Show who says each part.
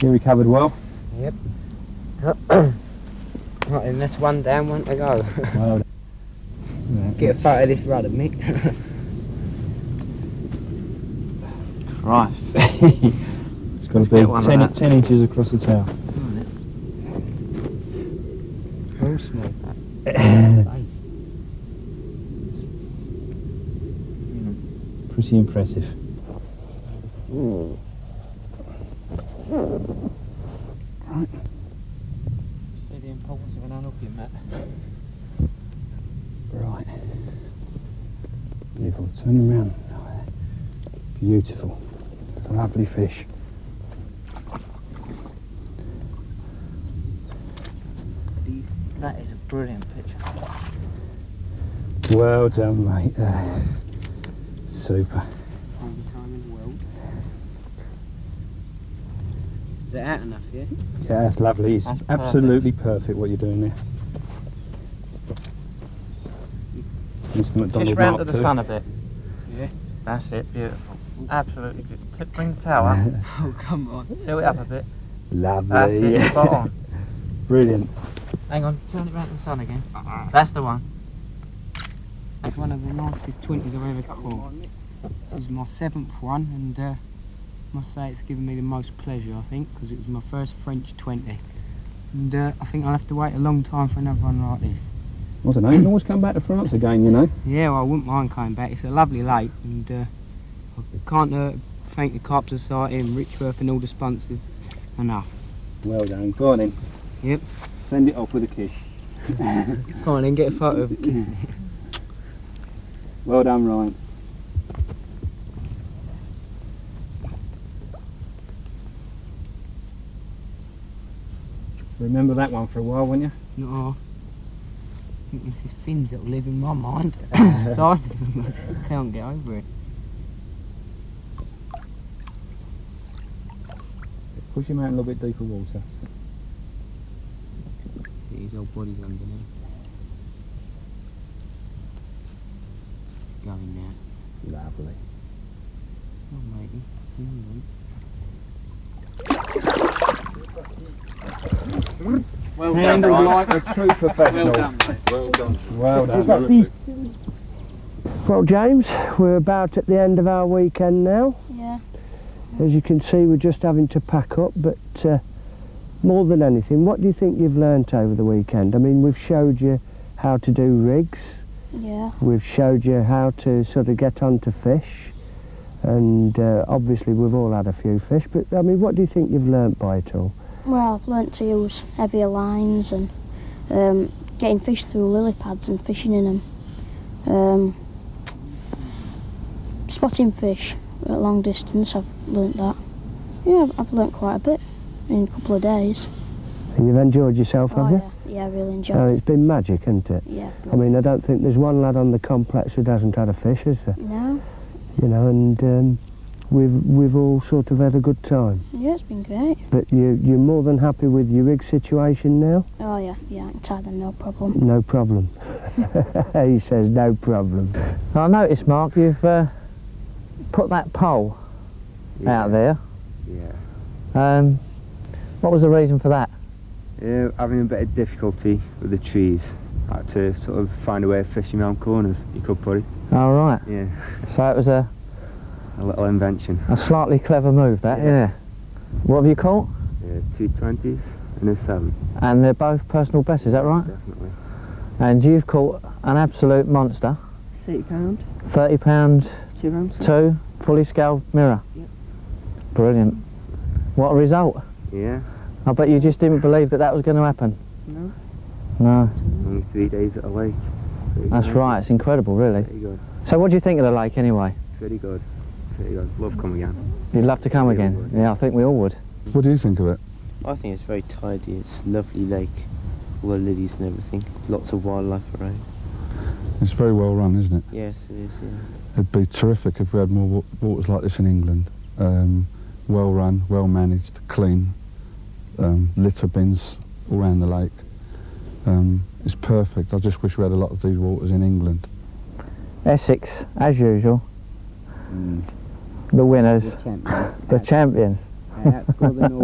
Speaker 1: He recovered well.
Speaker 2: Right then, that's one down, one to go.
Speaker 1: Well done.
Speaker 2: Get a photo of this rudder, Mick.
Speaker 3: Right.
Speaker 1: It's got to
Speaker 3: Get one
Speaker 1: be 10,
Speaker 3: of that.
Speaker 1: 10 inches across the tail.
Speaker 2: Very small.
Speaker 1: Pretty impressive.
Speaker 3: See the importance of an unhooking, Matt.
Speaker 1: Right. Beautiful. Turn around. Beautiful. Lovely fish.
Speaker 3: These, that is a brilliant picture.
Speaker 1: Well done, mate. there. super.
Speaker 2: Only time in the world. Is that out enough, yeah?
Speaker 1: Yeah, that's lovely. It's
Speaker 3: That's perfect.
Speaker 1: absolutely perfect. what you're doing there. Mr. McDonald
Speaker 3: Just round
Speaker 1: Mark
Speaker 3: to the
Speaker 1: II.
Speaker 3: sun a bit.
Speaker 2: Yeah.
Speaker 3: That's it, beautiful. Absolutely good. Tip, bring the towel up.
Speaker 2: Oh, come on.
Speaker 3: Tilt it up a bit. That's
Speaker 1: Lovely.
Speaker 3: it, spot on.
Speaker 1: Brilliant.
Speaker 3: Hang on, turn it round to the sun again. That's the one.
Speaker 2: That's one of the nicest 20s I've ever caught. This is my seventh one, and uh, must say it's given me the most pleasure, I think, because it was my first French 20. And uh, I think I'll have to wait a long time for another one like this.
Speaker 1: I don't know. You can always come back to France again, you know.
Speaker 2: Yeah, well, I wouldn't mind coming back. It's a lovely lake, and uh, I can't uh, thank the Carp Society and Richworth and all the sponsors enough.
Speaker 1: Well done. Go on then.
Speaker 2: Yep.
Speaker 1: Send it off with a kiss.
Speaker 2: Come on, then get a photo of it.
Speaker 1: Well done, Ryan. Remember that one for a while, won't you?
Speaker 2: No, I think this is fins that will live in my mind. the size of them, I just can't get over it.
Speaker 1: Push him out a little bit deeper water.
Speaker 2: His old body's underneath. Going now.
Speaker 1: Lovely.
Speaker 2: Oh, matey. Hang on.
Speaker 3: Well
Speaker 1: Handled like a true professional.
Speaker 4: Well done.
Speaker 1: Well done.
Speaker 5: Well, James, we're about at the end of our weekend now.
Speaker 6: Yeah,
Speaker 5: As you can see, we're just having to pack up, but uh, more than anything, what do you think you've learnt over the weekend? I mean, we've showed you how to do rigs,
Speaker 6: yeah,
Speaker 5: we've showed you how to sort of get onto fish, and uh, obviously we've all had a few fish, but I mean, what do you think you've learnt by it all?
Speaker 6: well, I've learnt to use heavier lines and um, getting fish through lily pads and fishing in them. Um, spotting fish at long distance, I've learnt that. Yeah, I've- I've learnt quite a bit in a couple of days.
Speaker 5: And you've enjoyed yourself, have you?
Speaker 6: oh, yeah, yeah, I really enjoyed
Speaker 5: Oh,
Speaker 6: it.
Speaker 5: it's been magic, hasn't it?
Speaker 6: Yeah,
Speaker 5: I mean, I don't think there's one lad on the complex who hasn't had a fish, is there?
Speaker 6: no,
Speaker 5: you know, and um, we've we've all sort of had a good time.
Speaker 6: yeah, it's been great.
Speaker 5: But you you're more than happy with your rig situation now?
Speaker 6: Oh, yeah, yeah, I can tie them, no problem.
Speaker 5: No problem. he says no problem.
Speaker 3: I noticed, Mark, you've uh, put that pole out there.
Speaker 7: Yeah.
Speaker 3: Um, what was the reason for that?
Speaker 7: Uh, having a bit of difficulty with the trees. Had to sort of find a way of fishing around corners. You could put it.
Speaker 3: All right.
Speaker 7: Yeah.
Speaker 3: So it was a,
Speaker 7: A little invention.
Speaker 3: a slightly clever move, that, yeah.
Speaker 7: Yeah.
Speaker 3: What have you caught?
Speaker 7: Uh, two twenties and a seven.
Speaker 3: And they're both personal bests, is that right?
Speaker 7: Definitely.
Speaker 3: And you've caught an absolute monster.
Speaker 8: Thirty pound,
Speaker 3: Thirty pound
Speaker 8: two rounds.
Speaker 3: two, fully scaled mirror.
Speaker 8: Yep.
Speaker 3: Brilliant. What a result.
Speaker 7: Yeah.
Speaker 3: I bet you just didn't believe that that was going to happen.
Speaker 8: No.
Speaker 3: No,
Speaker 7: Only three days at a lake. Pretty
Speaker 3: that's
Speaker 7: nice.
Speaker 3: right. It's incredible, really.
Speaker 7: Pretty good.
Speaker 3: So what do you think of the lake anyway?
Speaker 7: Pretty good. Pretty good. Love come again.
Speaker 3: You'd love to come
Speaker 7: Yeah,
Speaker 3: again.
Speaker 7: would.
Speaker 3: Yeah, I think we all would.
Speaker 4: What do you think of it?
Speaker 9: I think it's very tidy. It's a lovely lake, all the lilies and everything. Lots of wildlife around.
Speaker 4: It's very well run, isn't it?
Speaker 9: Yes, it is. Yes.
Speaker 4: It'd be terrific if we had more wa- waters like this in England. Um, well run, well managed, clean, um, litter bins all around the lake. Um, it's perfect. I just wish we had a lot of these waters in England.
Speaker 3: Essex, as usual, the winners, the champions.
Speaker 7: Uh,
Speaker 2: Outscore the North